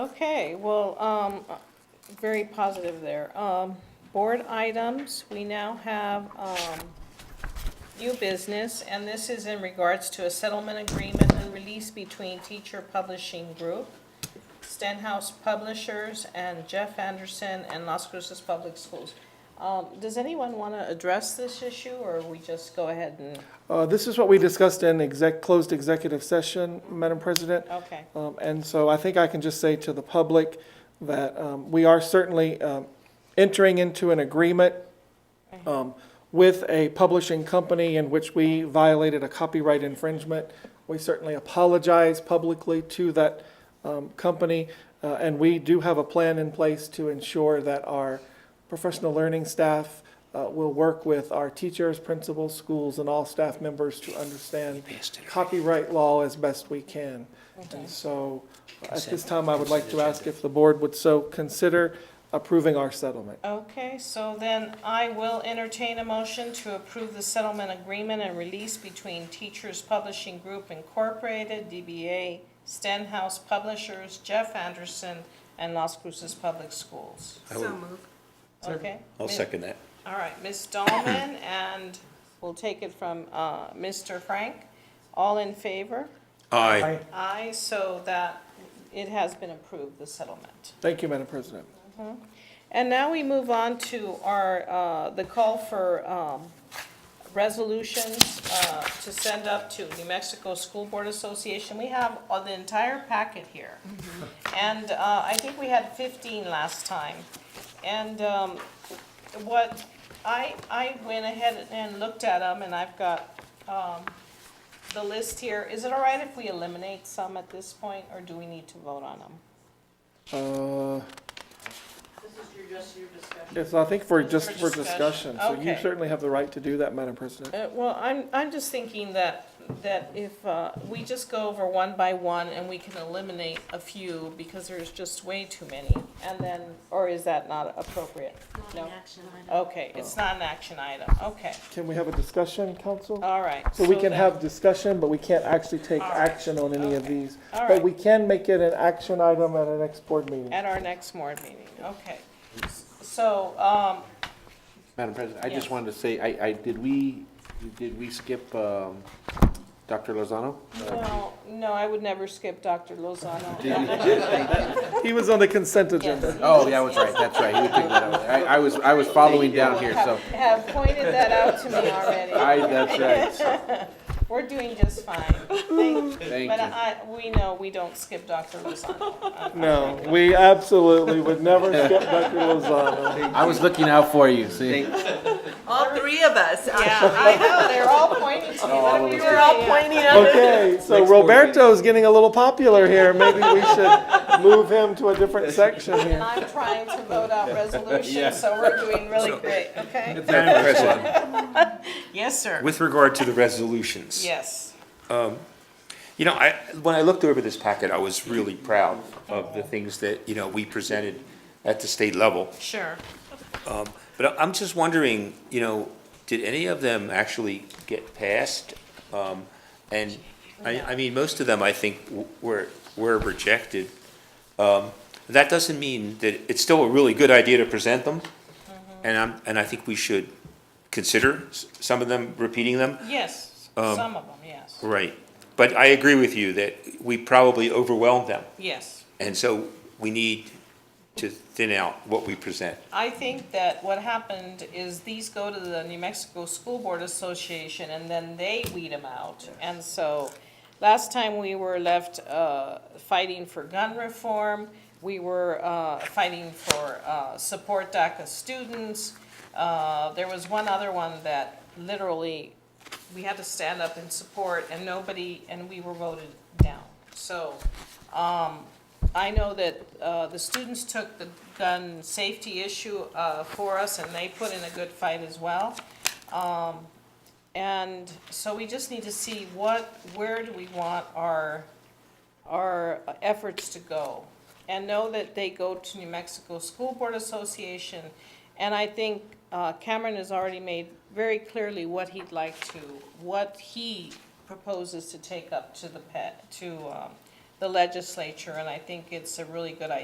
Okay, well, um, very positive there. Um, board items, we now have, um, new business, and this is in regards to a settlement agreement and release between Teacher Publishing Group, Stenhouse Publishers, and Jeff Anderson and Las Cruces Public Schools. Um, does anyone wanna address this issue, or we just go ahead and, Uh, This is what we discussed in exec, closed executive session, Madam President. okay, Um, And so I think I can just say to the public that um, we are certainly um, entering into an agreement um, with a publishing company in which we violated a copyright infringement. We certainly apologize publicly to that um, company, uh, and we do have a plan in place to ensure that our professional learning staff uh, will work with our teachers, principals, schools, and all staff members to understand copyright law as best we can. And so, at this time, I would like to ask if the board would so consider approving our settlement. Okay, so then I will entertain a motion to approve the settlement agreement and release between Teachers Publishing Group Incorporated, DBA Stenhouse Publishers, Jeff Anderson, and Las Cruces Public Schools. I will- Okay? I'll Mi- second that. All right, Ms. Dahlman, and we'll take it from uh, Mr. Frank. All in favor? Aye. Aye, so that it has been approved, the settlement. Thank you, Madam President. And now we move on to our, uh, the call for um, resolutions uh, to send up to New Mexico School Board Association. We have uh, the entire packet here. And uh, I think we had 15 last time. And um, what, I, I went ahead and looked at them, and I've got um, the list here. Is it all right if we eliminate some at this point, or do we need to vote on them? Uh, This is your, just your discussion. Yes, I think for, just For for discussion. discussion, so you Okay. certainly have the right to do that, Madam President. Uh, Well, I'm, I'm just thinking that, that if uh, we just go over one by one and we can eliminate a few because there's just way too many, and then, or is that not appropriate? No. Okay, it's not an action item, okay, Can we have a discussion, council? all right. So we can Uh, then- have discussion, but we can't actually take All right. action on any of these. All But right. we can make it an action item at our next board meeting. At our next board meeting, okay. So, um, Madam President, I Yes. just wanted to say, I, I, did we, did we skip um, Dr. Lozano? no, no, I would never skip Dr. Did Lozano. we- He was on the consent agenda. Oh, yeah, that's right, that's right, we picked that up. I, I was, I was following down here, so, Have pointed that out to me already. I, that's right, We're doing just fine, thank you. thank But you. I, we know we don't skip Dr. Lozano. I- No, we absolutely would never skip Dr. Lozano. uh, I was looking out for you, see? All three of us. Yeah, I know, they're all pointing to me. all What of are we us. doing? We're all pointing at Okay, so Next board meeting. Roberto's getting a little popular here. Maybe we should move him to a different section And here. I'm trying to vote out resolutions, so we're doing really great, okay? Madam President, Yes, sir. with regard to the resolutions. Yes. You know, I, when I looked over this packet, I was really proud of the things that, you know, we presented at the state level. Sure. But I- I'm just wondering, you know, did any of them actually get passed? Um, and I, I mean, most of them, I think, w- were, were rejected. Um, that doesn't mean that it's still a really good idea to present them. And I'm, and I think we should consider s- some of them, repeating them. Yes, some of them, yes. Right. But I agree with you that we probably overwhelmed them. Yes. And so we need to thin out what we present. I think that what happened is these go to the New Mexico School Board Association, and then they weed them out. And so, last time we were left uh, fighting for gun reform, we were uh, fighting for uh, support DACA students. Uh, There was one other one that literally, we had to stand up in support, and nobody, and we were voted down. So, I know that uh, the students took the gun safety issue uh, for us, and they put in a good fight as well. Um, And so we just need to see what, where do we want our, our efforts to go? And know that they go to New Mexico School Board Association, and I think uh, Cameron has already made very clearly what he'd like E to, what he proposes to take up to the pet, to um, the legislature, and I think it's a really good idea.